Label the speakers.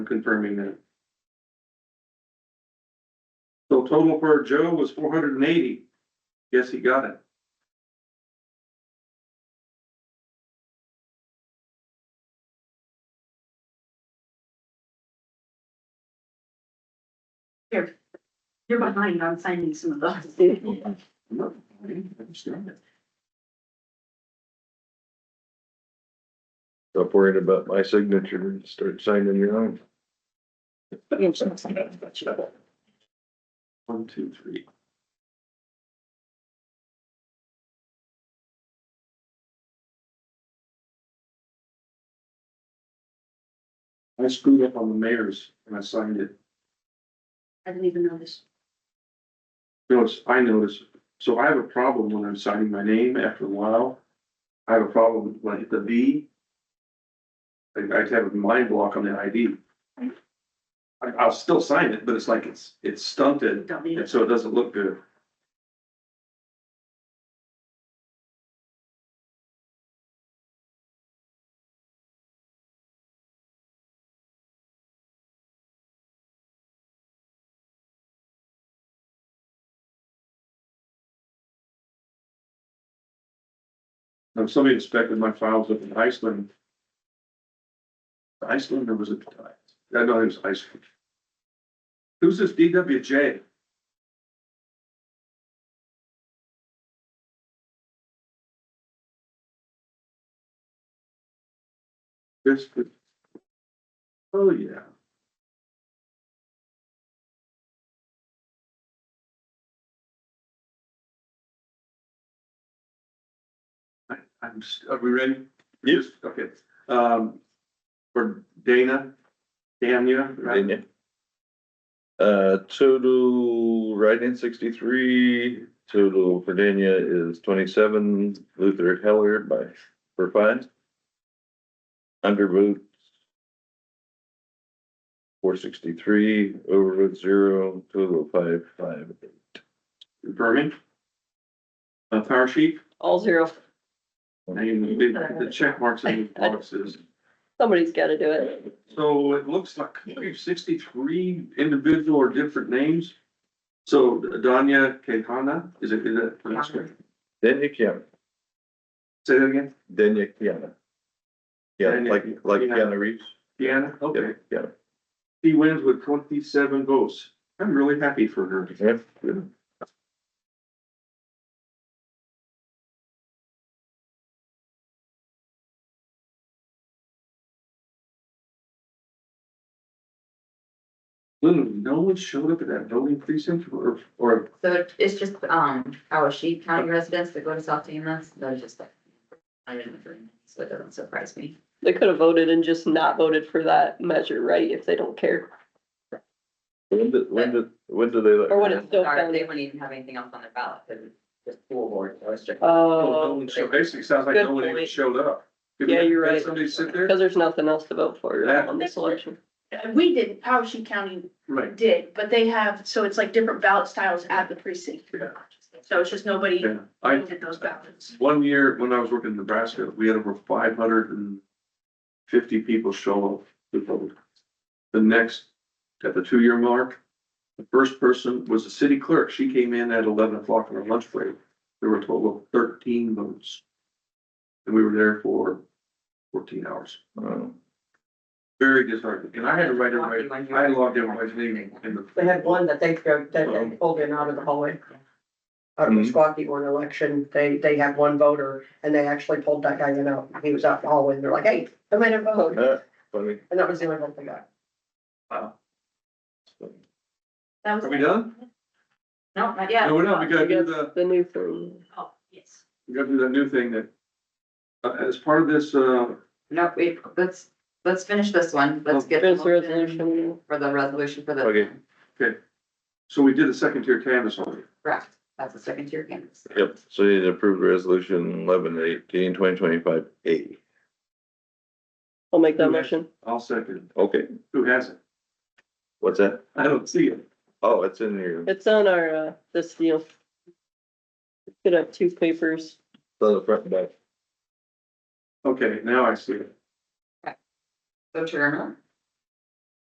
Speaker 1: confirming that. So total for Joe was four hundred and eighty. Guess he got it.
Speaker 2: You're behind on signing some of those. too.
Speaker 1: No, I didn't understand it.
Speaker 3: Stop worrying about my signature and start signing your own.
Speaker 1: One, two, three. I screwed up on the mayor's and I signed it.
Speaker 2: I didn't even notice.
Speaker 1: Notice, I notice, so I have a problem when I'm signing my name after a while. I have a problem when I hit the V. I, I have a mind block on the ID. I, I'll still sign it, but it's like it's, it's
Speaker 2: You
Speaker 1: stunted,
Speaker 2: don't need
Speaker 1: and
Speaker 2: it.
Speaker 1: so it doesn't look good. Um, somebody inspected my files up in Iceland. Iceland or was it, I know it was Iceland. Who's this DWJ? This, oh yeah. I'm, s- are we ready? Yes. Okay, um, for Dana, Dania, right?
Speaker 3: Didn't you? Uh, total write-in sixty-three, total Virginia is twenty-seven, Luther Heller by, for five. Underboot. Four sixty-three, overvote zero, total five, five.
Speaker 1: Confirming. Uh, power sheet,
Speaker 4: All zero.
Speaker 1: and you did the check marks in the boxes.
Speaker 4: Somebody's gotta do it.
Speaker 1: So it looks like we have sixty-three individual or different names. So Danya Kehana, is it, is it pronounced right?
Speaker 3: Denya Kiana,
Speaker 1: Say that again?
Speaker 3: Denya Kiana. Yeah,
Speaker 1: Denya
Speaker 3: like, like
Speaker 1: Kiana.
Speaker 3: Kiana Reeves.
Speaker 1: Deanna, okay.
Speaker 3: Yeah,
Speaker 1: She wins with twenty-seven votes. I'm really happy for her.
Speaker 3: yeah, yeah.
Speaker 1: Literally, no one showed up at that voting precinct or, or
Speaker 5: So it- it's just, um, our sheep county residents that go to South Tamas, they're just like. I didn't agree, so it doesn't surprise me.
Speaker 4: They could have voted and just not voted for that measure, right, if they don't care.
Speaker 3: When did, when did, when did they?
Speaker 4: Or
Speaker 3: let-
Speaker 4: when it's still
Speaker 5: Sorry, They
Speaker 4: counted.
Speaker 5: wouldn't even have anything else on their ballot, because the school board, so it's just.
Speaker 1: Oh, no
Speaker 4: Oh,
Speaker 1: one showed, basically sounds like
Speaker 4: Good
Speaker 1: no one even
Speaker 4: point.
Speaker 1: showed up. Did-
Speaker 4: Yeah, you're
Speaker 1: did
Speaker 4: right.
Speaker 1: Somebody sit there?
Speaker 4: because there's nothing else to vote for
Speaker 1: Yeah.
Speaker 4: on this election.
Speaker 6: Uh, We did, Powashik County
Speaker 1: Right,
Speaker 6: did, but they have, so it's like different ballot styles at the precinct.
Speaker 1: Yeah.
Speaker 6: So it's just nobody
Speaker 1: yeah. I,
Speaker 6: did those ballots.
Speaker 1: one year when I was working in Nebraska, we had over five hundred and fifty people show up to vote. The next, at the two-year mark, the first person was the city clerk. She came in at eleven o'clock on her lunch break. There were a total of thirteen votes. And we were there for fourteen hours.
Speaker 3: Oh.
Speaker 1: Very disheartening. And I had to write everybody, I logged everybody's name in the
Speaker 7: They had one that they, that they pulled in out of the hallway. Out of the
Speaker 3: Mhm.
Speaker 7: Squawky Horn election, they, they had one voter and they actually pulled that guy in out. He was out in the hallway and they're like, hey, I made him vote.
Speaker 3: Uh, Funny.
Speaker 7: And that was the only vote they got.
Speaker 5: That was.
Speaker 1: Are we done?
Speaker 5: No, not yet.
Speaker 1: No, we're not. We gotta do
Speaker 4: Yes,
Speaker 1: the,
Speaker 4: The new thing.
Speaker 5: Oh, yes.
Speaker 1: we gotta do that new thing that, uh, as part of this, uh,
Speaker 5: No, we, let's, let's finish this one, let's get. the
Speaker 4: There's a
Speaker 5: motion
Speaker 4: resolution.
Speaker 5: For the resolution for the.
Speaker 3: Okay.
Speaker 1: so we did a second tier canvas on it.
Speaker 5: Correct, that's the second tier canvas.
Speaker 3: Yep, so you need to approve resolution eleven eighteen twenty twenty-five A.
Speaker 4: I'll make that
Speaker 1: Okay.
Speaker 4: motion.
Speaker 1: I'll second.
Speaker 3: Okay,
Speaker 1: Who has it?
Speaker 3: what's that?
Speaker 1: I don't see it.
Speaker 3: Oh, it's in your, it's
Speaker 4: It's on our, uh, this deal. Could have two papers.
Speaker 3: on the front and back.
Speaker 1: Okay, now I see it.
Speaker 5: So Chairman,